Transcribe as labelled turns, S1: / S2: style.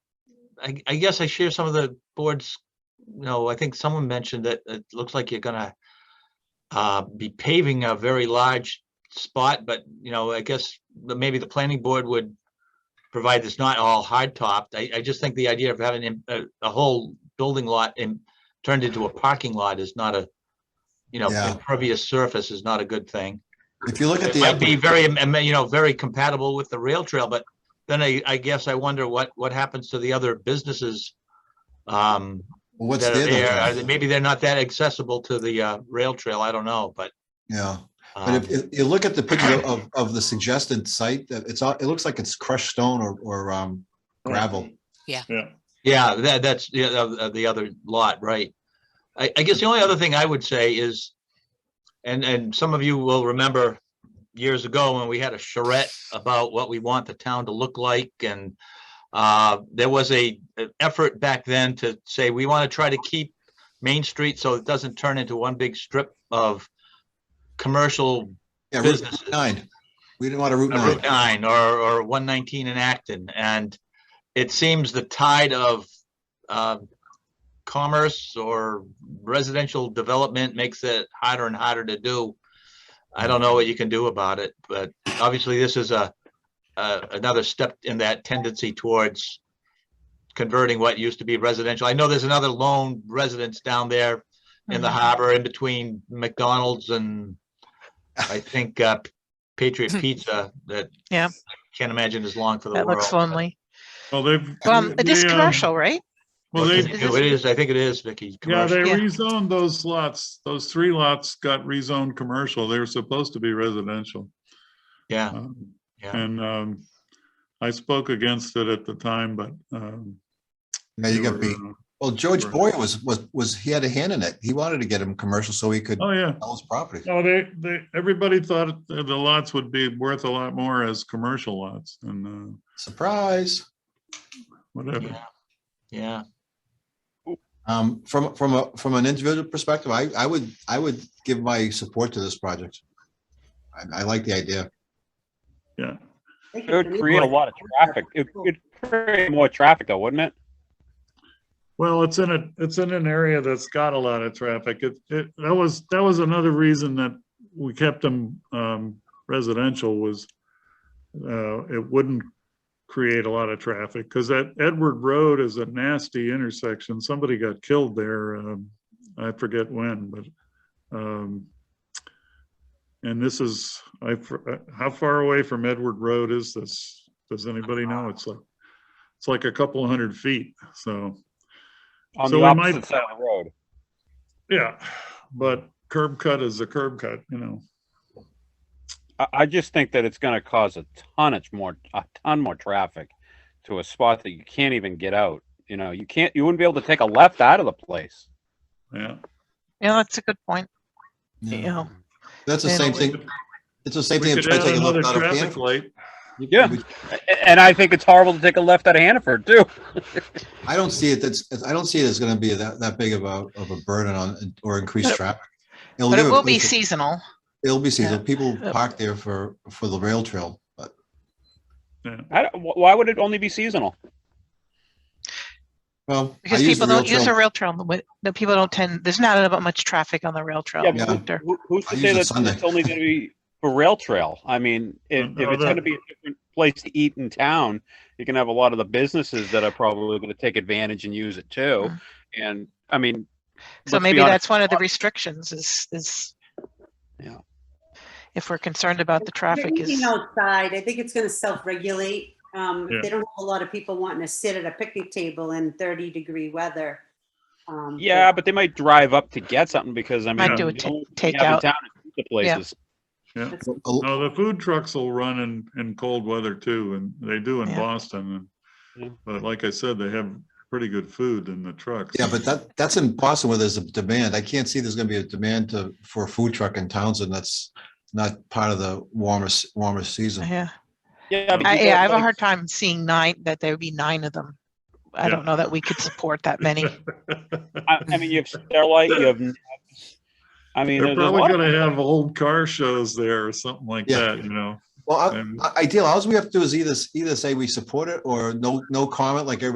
S1: I, I guess I share some of the board's, no, I think someone mentioned that it looks like you're gonna uh, be paving a very large spot, but, you know, I guess the- maybe the planning board would provide it's not all hard topped. I, I just think the idea of having im- a, a whole building lot and turned into a parking lot is not a, you know,
S2: Yeah.
S1: impervious surface is not a good thing.
S2: If you look at
S1: It
S2: the,
S1: might be
S2: upper-
S1: very, am- am- you know, very compatible with the rail trail, but then I, I guess I wonder what, what happens to the other businesses? Um,
S2: what's
S1: that are there, Are they-
S2: there?
S1: maybe they're not that accessible to the, uh, rail trail, I don't know, but,
S2: Yeah, but
S1: um,
S2: if you- you look at the picture of, of the suggested site, that it's, all- it looks like it's crushed stone or, or um, gravel.
S3: Yeah,
S1: yeah, that, that's the, uh, the other lot, right? I, I guess the only other thing I would say is, and, and some of you will remember years ago when we had a charrette about what we want the town to look like and uh, there was a, an effort back then to say, we want to try to keep Main Street so it doesn't turn into one big strip of commercial
S2: Yeah, Route
S1: businesses.
S2: nine. We didn't want a Route
S1: Uh, Route
S2: nine.
S1: nine or, or one nineteen in Acton, and it seems the tide of, um, commerce or residential development makes it harder and harder to do. I don't know what you can do about it, but obviously this is a, uh, another step in that tendency towards converting what used to be residential. I know there's another lone residence down there in the harbor in between McDonald's and I think, uh, Patriot Pizza that.
S4: Yeah.
S1: Can't imagine is long for the
S4: That
S1: world.
S4: looks lonely.
S3: well, they've.
S4: Um, it is
S3: they, um,
S4: commercial, right?
S3: Well,
S1: It
S3: they,
S4: Is
S1: it is, I think it is, Vicky.
S3: yeah, they
S1: commercial.
S4: Yeah.
S3: rezoned those lots, those three lots got rezoned commercial. They were supposed to be residential.
S1: Yeah,
S3: Um,
S1: yeah.
S3: And um, I spoke against it at the time, but um.
S2: Yeah, you
S3: they
S2: got
S3: were,
S2: beat.
S3: uh,
S2: Well, George
S3: Right.
S2: Boyer was, was, was, he had a hand in it. He wanted to get him commercial so he could
S3: Oh, yeah.
S2: sell his property.
S3: No, they, they, everybody thought that the lots would be worth a lot more as commercial lots and uh,
S2: Surprise.
S3: whatever.
S1: Yeah. Yeah,
S2: Um, from, from a, from an individual perspective, I, I would, I would give my support to this project. I, I like the idea.
S3: Yeah.
S5: It would create a lot of traffic. It would create more traffic though, wouldn't it?
S3: Well, it's in a, it's in an area that's got a lot of traffic. It, it, that was, that was another reason that we kept them um, residential was uh, it wouldn't create a lot of traffic because that Edward Road is a nasty intersection. Somebody got killed there. um, I forget when, but um, and this is, I, for- how far away from Edward Road is this? Does anybody know? It's like, it's like a couple hundred feet, so.
S5: On
S3: So
S5: the
S3: we might-
S5: opposite side of the road.
S3: Yeah, but curb cut is a curb cut, you know.
S5: I, I just think that it's gonna cause a tonnage more, a ton more traffic to a spot that you can't even get out. You know, you can't, you wouldn't be able to take a left out of the place.
S3: Yeah.
S4: Yeah, that's a good point.
S2: Yeah.
S4: Yeah.
S2: That's the same
S4: And-
S2: thing. It's the same
S3: We
S2: thing.
S3: could
S2: of trying to
S3: add
S2: take a
S3: another
S2: look out of
S3: traffic
S2: Hannaford.
S3: light.
S5: Yeah, A- and I think it's horrible to take a left out of Hannaford too.
S2: I don't see it, that's, I don't see it as gonna be that, that big of a, of a burden on, or increased
S4: But-
S2: traffic.
S4: But
S2: give
S4: it
S2: a
S4: will be
S2: place-
S4: seasonal.
S2: It'll be seasonal.
S4: yeah.
S2: People
S4: Uh,
S2: park there for, for the rail trail, but
S5: I don't, wh- why would it only be seasonal?
S2: well. I
S4: Because
S2: use the
S4: people don't
S2: rail
S4: use the
S2: trail-
S4: rail trail, but the people don't tend, there's not about much traffic on the rail trail.
S5: Yeah,
S2: but
S4: Victor.
S5: Who, who's
S2: I
S5: to
S2: use
S5: say
S2: it
S5: that
S2: Sunday.
S5: it's only gonna be for rail trail? I mean, if, if
S3: No,
S5: it's
S3: that-
S5: gonna be a different place to eat in town, you're gonna have a lot of the businesses that are probably gonna take advantage and use it too.
S4: Mm.
S5: And, I mean.
S4: So
S5: let's be
S4: maybe
S5: honest,
S4: that's one of the restrictions is, is.
S5: Yeah.
S4: If we're concerned about the traffic is,
S6: Eating outside, I think it's gonna self-regulate. Um,
S3: Yeah.
S6: if they don't have a lot of people wanting to sit at a picnic table in thirty degree weather. um,
S5: Yeah, but they might drive up to get something because I mean.
S3: Might do
S4: a
S5: you
S4: ta-
S5: know, we
S4: take
S5: have in
S4: out.
S5: town The places.
S2: Oh,
S3: No, the food trucks will run in, in cold weather too, and they do in
S4: Yeah.
S3: Boston.
S5: Yeah.
S3: But like I said, they have pretty good food in the trucks.
S2: Yeah, but that, that's in Boston where there's a demand. I can't see there's gonna be a demand to, for a food truck in Townsend. That's not part of the warmest, warmer season.
S4: yeah,
S5: Yeah. but
S4: I,
S5: you
S4: yeah,
S5: got,
S4: I have a
S5: like-
S4: hard time seeing nine, that there would be nine of them. I
S3: Yeah.
S4: don't know that we could support that many.
S5: I, I mean, you have Starlight, you have. Nabs. I mean,
S3: They're
S5: there's a
S3: probably
S5: lot. of-
S3: gonna have old car shows there or something like
S2: Yeah. Uh,
S3: that, you know.
S2: Well, I-
S3: And-
S2: I- ideal, all we have to do is either, either say we support it or no, no comment like everybody